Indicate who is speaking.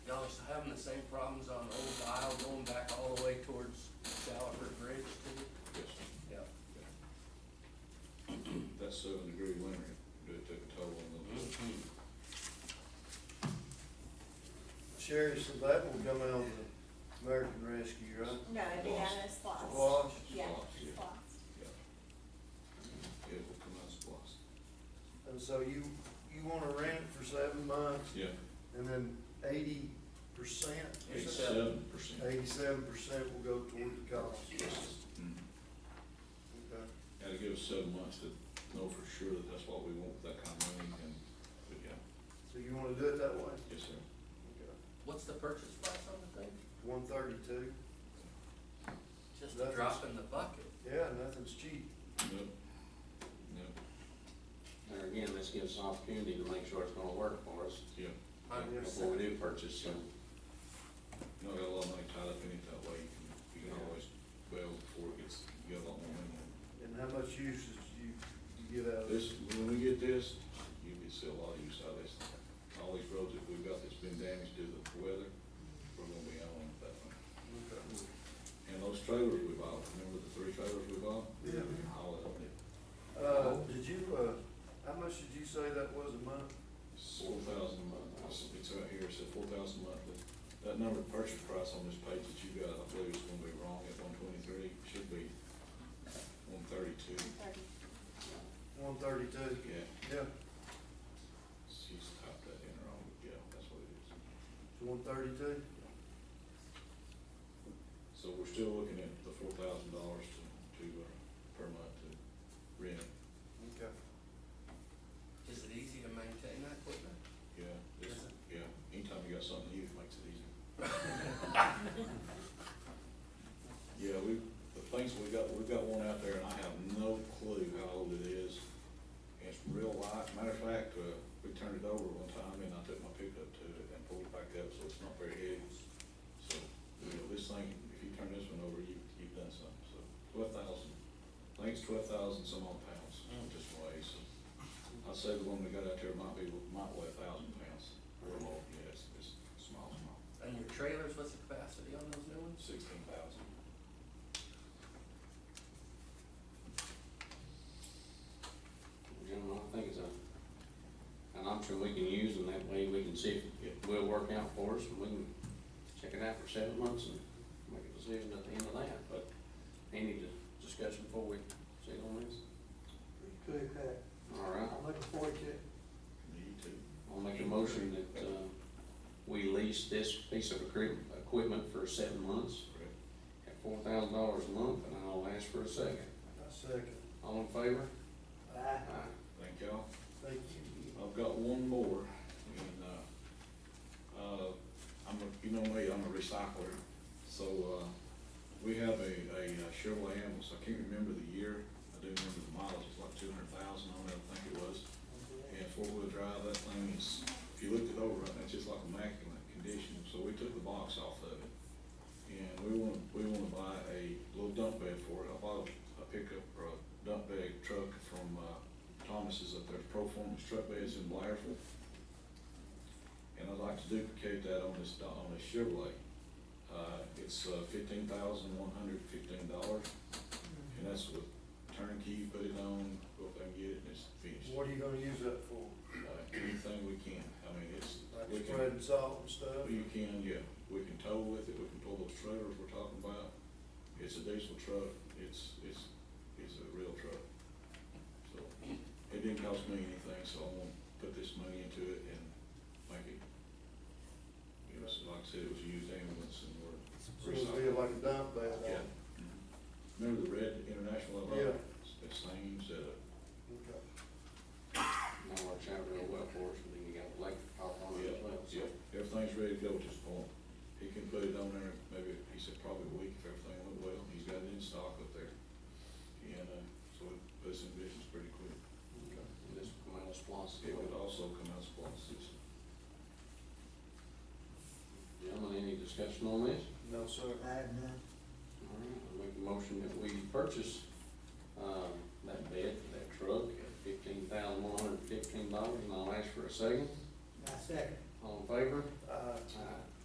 Speaker 1: same problems on Old Isle going back all the way towards Salford Bridge too?
Speaker 2: Yes,
Speaker 1: Yeah.
Speaker 2: that seven degree winter, do it took a toll on
Speaker 1: Mm-hmm.
Speaker 2: them.
Speaker 3: Sherry, so that will come out of the American Rescue, right?
Speaker 4: No, it'd be down in Splost.
Speaker 3: Splosh?
Speaker 4: Yeah,
Speaker 2: Splosh, yeah.
Speaker 4: Splost.
Speaker 2: Yeah. It will come out of splosh.
Speaker 3: And so you, you wanna rent it for seven months
Speaker 2: Yeah,
Speaker 3: and then eighty percent?
Speaker 2: eighty-seven percent.
Speaker 3: Eighty-seven percent will go toward the cost. Okay.
Speaker 2: Mm-hmm. Gotta give us seven months to know for sure that that's what we want, with that kind of money, and, but yeah,
Speaker 3: So you wanna do it that way?
Speaker 2: yes, sir.
Speaker 3: Okay.
Speaker 1: What's the purchase price on the thing?
Speaker 3: One thirty-two?
Speaker 1: Just a
Speaker 3: Nothing's-
Speaker 1: drop in the bucket.
Speaker 3: Yeah, nothing's cheap.
Speaker 2: Nope, nope,
Speaker 5: There again, this gives us an opportunity to make sure it's gonna work for us
Speaker 2: yeah.
Speaker 1: Hundred
Speaker 3: Yes.
Speaker 5: before we do purchase, so.
Speaker 2: You know, got a lot of money tied up in it that way, you can, you can always, well, before it gets, you got a lot more money.
Speaker 3: And how much use did you, you get out of it?
Speaker 2: This, when we get this, you can see a lot of use out of this. All these roads that we've got that's been damaged due to the weather, we're gonna be on with that one.
Speaker 3: Okay.
Speaker 2: And those trailers we bought, remember the three trailers we bought?
Speaker 3: Yeah.
Speaker 2: All of them,
Speaker 3: Uh, did you, uh, how much did you say that was a month?
Speaker 2: four thousand a month, it's it's right here, it said four thousand monthly. That number of purchase price on this page that you got, I believe is gonna be wrong at one twenty-three, should be one thirty-two.
Speaker 3: One thirty-two?
Speaker 2: Yeah,
Speaker 3: Yeah,
Speaker 2: she's typed that in wrong, but yeah, that's what it is.
Speaker 3: it's one thirty-two?
Speaker 2: So we're still looking at the four thousand dollars to, to, uh, per month to rent,
Speaker 3: Okay.
Speaker 1: Is it easy to maintain that equipment?
Speaker 2: yeah, this, yeah, anytime you got something new, it makes it easy. Yeah, we, the things we got, we've got one out there and I have no clue how old it is. It's real light, matter of fact, uh, we turned it over one time and I took my pickup to it and pulled it back up, so it's not very heavy. So, you know, this thing, if you turn this one over, you, you've done something, so twelve thousand, I think it's twelve thousand some odd pounds this way, so. I'd say the one we got out there might be, might weigh a thousand pounds or more, yeah, it's, it's small, small,
Speaker 1: And your trailers, what's the capacity on those new ones?
Speaker 2: sixteen thousand.
Speaker 5: Gentlemen, I think it's a, an option we can use, and that way we can see if it will work out for us, and we can check it out for seven months and make a decision at the end of that, but any di- discussion before we sit on this?
Speaker 6: Pretty clear cut.
Speaker 5: All right,
Speaker 6: I'm looking forward to it.
Speaker 2: Me too.
Speaker 5: I'll make a motion that, uh, we lease this piece of equip, equipment for seven months
Speaker 2: Correct.
Speaker 5: at four thousand dollars a month, and I'll ask for a second.
Speaker 3: I second.
Speaker 5: All in favor?
Speaker 6: Bye.
Speaker 5: Aye.
Speaker 2: Thank y'all.
Speaker 3: Thank you.
Speaker 2: I've got one more, and, uh, uh, I'm a, you know me, I'm a recycler, so, uh, we have a, a Chevrolet ambulance, I can't remember the year, I do remember the mileage, it's like two hundred thousand on it, I think it was. And four-wheel drive, that thing is, if you looked it over, it's just like immaculate condition, so we took the box off of it. And we wanna, we wanna buy a little dump bed for it, I bought a pickup or a dump bed truck from, uh, Thomas's up there, Proform's Truck Beds in Blairsville. And I'd like to duplicate that on this, do- on this Chevrolet. Uh, it's fifteen thousand one hundred fifteen dollars, and that's with turnkey, put it on, go up there and get it, and it's finished.
Speaker 3: What are you gonna use that for?
Speaker 2: Uh, anything we can, I mean, it's, we
Speaker 3: Like
Speaker 2: can,
Speaker 3: spreading salt and stuff?
Speaker 2: you can, yeah, we can tow with it, we can pull those trailers we're talking about. It's a diesel truck, it's, it's, it's a real truck. So, it didn't cost me anything, so I'm gonna put this money into it and make it. It was, like I said, it was a used ambulance and we're.
Speaker 3: So it'll be like a dump bed.
Speaker 2: Yeah.
Speaker 3: huh?
Speaker 2: Remember the Red International, I
Speaker 3: Yeah.
Speaker 2: bought? It's the same setup.
Speaker 3: Okay.
Speaker 5: That works out real well for us, and then you got the lake out on it as well, so.
Speaker 2: Yeah, everything's ready to go at this point. He can put it on there, maybe, he said probably a week if everything went well, he's got it in stock up there. And, uh, so it puts in business pretty quick.
Speaker 5: And This will come out of SPOS.
Speaker 2: It would also come out of Splot's system.
Speaker 5: Gentlemen, any discussion on this?
Speaker 3: No, sir.
Speaker 6: I have none.
Speaker 5: All right, I'll make a motion that we purchase, um, that bed, that truck, at fifteen thousand one hundred fifteen dollars, and I'll ask for a second.
Speaker 6: My second.
Speaker 5: All in favor?
Speaker 3: Uh,
Speaker 5: Aye.